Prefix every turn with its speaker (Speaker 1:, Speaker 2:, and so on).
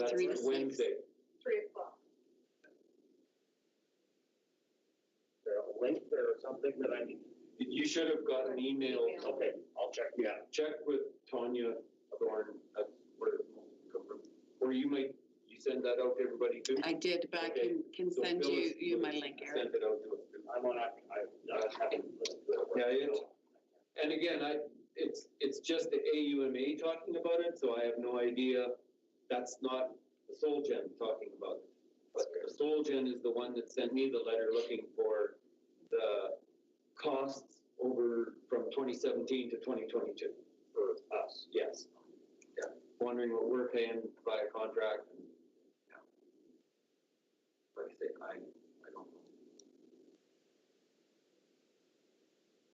Speaker 1: That's
Speaker 2: Three to six.
Speaker 1: Wednesday.
Speaker 3: three o'clock.
Speaker 4: Is there a link there or something that I need?
Speaker 1: You should have got an email.
Speaker 4: Okay, I'll check.
Speaker 1: Yeah, check with Tanya Thorne, uh, where, or you might, you send that out to everybody too?
Speaker 2: I did, but I can, can
Speaker 1: So
Speaker 2: send you,
Speaker 1: Phyllis
Speaker 2: you my
Speaker 1: will
Speaker 2: link, Eric.
Speaker 1: Send it out to us too.
Speaker 4: I'm on, I, I haven't.
Speaker 1: Yeah, it's- And again, I, it's, it's just the AUMA talking about it, so I have no idea, that's not the Solgen talking about it. But the Solgen is the one that sent me the letter looking for the costs over from twenty seventeen to twenty twenty-two.
Speaker 4: For us.
Speaker 1: Yes. Yeah, wondering what we're paying by a contract and, yeah. Like I say, I,